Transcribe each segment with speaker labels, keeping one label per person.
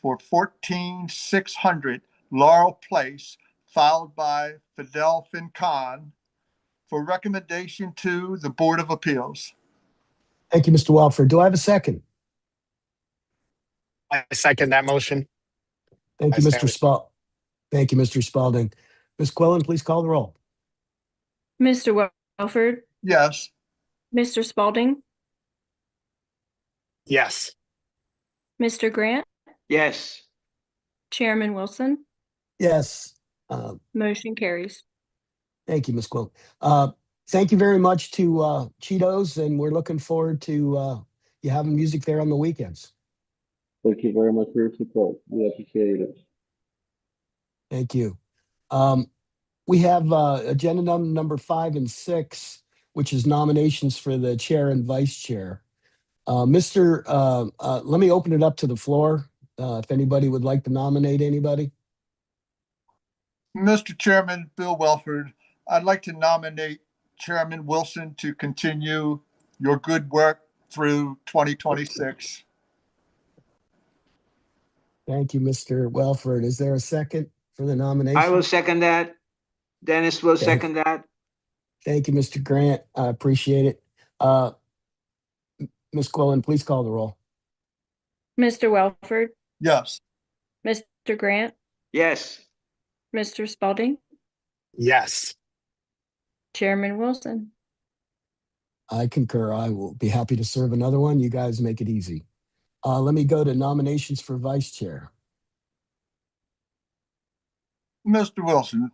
Speaker 1: for fourteen six hundred Laurel Place, filed by Fidel Fincon for recommendation to the Board of Appeals.
Speaker 2: Thank you, Mr. Walford. Do I have a second?
Speaker 3: I second that motion.
Speaker 2: Thank you,
Speaker 3: I
Speaker 2: Mr.
Speaker 3: second.
Speaker 2: Spal. Thank you, Mr. Spalding. Ms. Quillen, please call the roll.
Speaker 4: Mr. Welford,
Speaker 1: Yes,
Speaker 4: Mr. Spalding,
Speaker 3: Yes.
Speaker 4: Mr. Grant,
Speaker 5: yes,
Speaker 4: Chairman Wilson,
Speaker 2: Yes. Uh,
Speaker 4: motion carries.
Speaker 2: Thank you, Ms. Quillen. Uh, Thank you very much to uh, Cheetos, and we're looking forward to uh, you having music there on the weekends.
Speaker 6: Thank you very much for your support. We appreciate it.
Speaker 2: Thank you. Um, we have, uh, agenda num- number five and six, which is nominations for the chair and vice chair. Uh, Mr., uh, uh, let me open it up to the floor, uh, if anybody would like to nominate anybody.
Speaker 1: Mr. Chairman, Bill Welford, I'd like to nominate Chairman Wilson to continue your good work through twenty twenty-six.
Speaker 2: Thank you, Mr. Welford. Is there a second for the nomination?
Speaker 5: I will second that. Dennis will
Speaker 2: Okay.
Speaker 5: second that.
Speaker 2: Thank you, Mr. Grant. I appreciate it. Uh, M- Ms. Quillen, please call the roll.
Speaker 4: Mr. Welford,
Speaker 1: Yes,
Speaker 4: Mr. Grant,
Speaker 5: Yes,
Speaker 4: Mr. Spalding,
Speaker 3: Yes.
Speaker 4: Chairman Wilson,
Speaker 2: I concur. I will be happy to serve another one. You guys make it easy. Uh, let me go to nominations for vice chair.
Speaker 1: Mr. Wilson,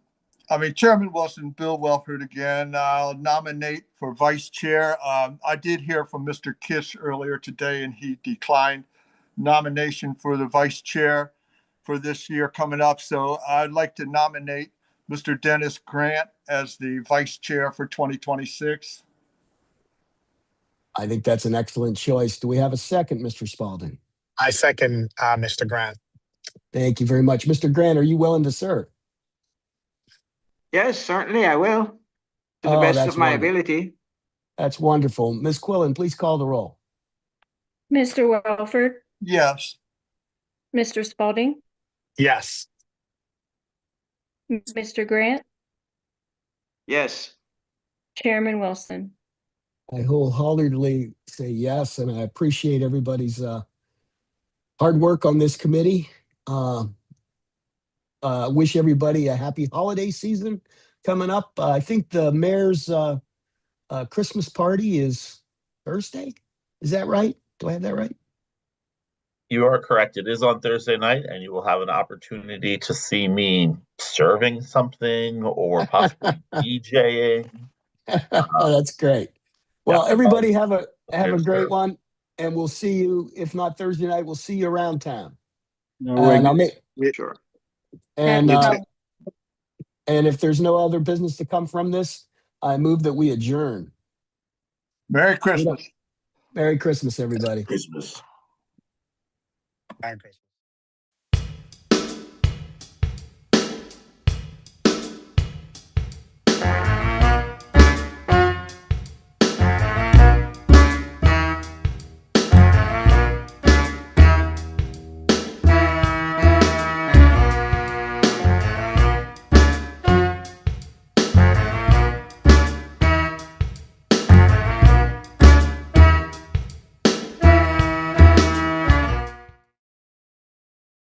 Speaker 1: I mean Chairman Wilson, Bill Welford again, I'll nominate for Vice Chair. Um, I did hear from Mr. Kiss earlier today and he declined nomination for the Vice Chair for this year coming up. So I'd like to nominate Mr. Dennis Grant as the Vice Chair for 2026.
Speaker 2: I think that's an excellent choice. Do we have a second, Mr. Spalding?
Speaker 3: I second, uh, Mr. Grant.
Speaker 2: Thank you very much. Mr. Grant, are you willing to serve?
Speaker 5: yes, certainly I will. To the
Speaker 2: Oh,
Speaker 5: best
Speaker 2: that's
Speaker 5: of my
Speaker 2: wonderful.
Speaker 5: ability.
Speaker 2: That's wonderful. Ms. Quillen, please call the roll.
Speaker 4: Mr. Welford,
Speaker 1: Yes,
Speaker 4: Mr. Spalding,
Speaker 3: Yes.
Speaker 4: Mr. Grant,
Speaker 5: Yes,
Speaker 4: Chairman Wilson,
Speaker 2: I wholeheartedly say yes, and I appreciate everybody's uh, hard work on this committee. Uh, uh, wish everybody a happy holiday season coming up. Uh, I think the mayor's uh, uh, Christmas party is Thursday. Is that right? Do I have that right?
Speaker 7: You are correct. It is on Thursday night, and you will have an opportunity to see me serving something or possibly DJing.
Speaker 2: oh, that's great. Well,
Speaker 7: Yeah.
Speaker 2: everybody have a have a
Speaker 7: Cheers,
Speaker 2: great
Speaker 7: sir.
Speaker 2: one, and we'll see you. If not Thursday night, we'll see you around town.
Speaker 6: No,
Speaker 2: Uh, and I'll make
Speaker 5: sure.
Speaker 2: and
Speaker 4: you
Speaker 2: uh,
Speaker 4: too.
Speaker 2: and if there's no other business to come from this, I move that we adjourn.
Speaker 1: Merry Christmas.
Speaker 2: Merry Christmas, everybody.
Speaker 3: Merry Christmas.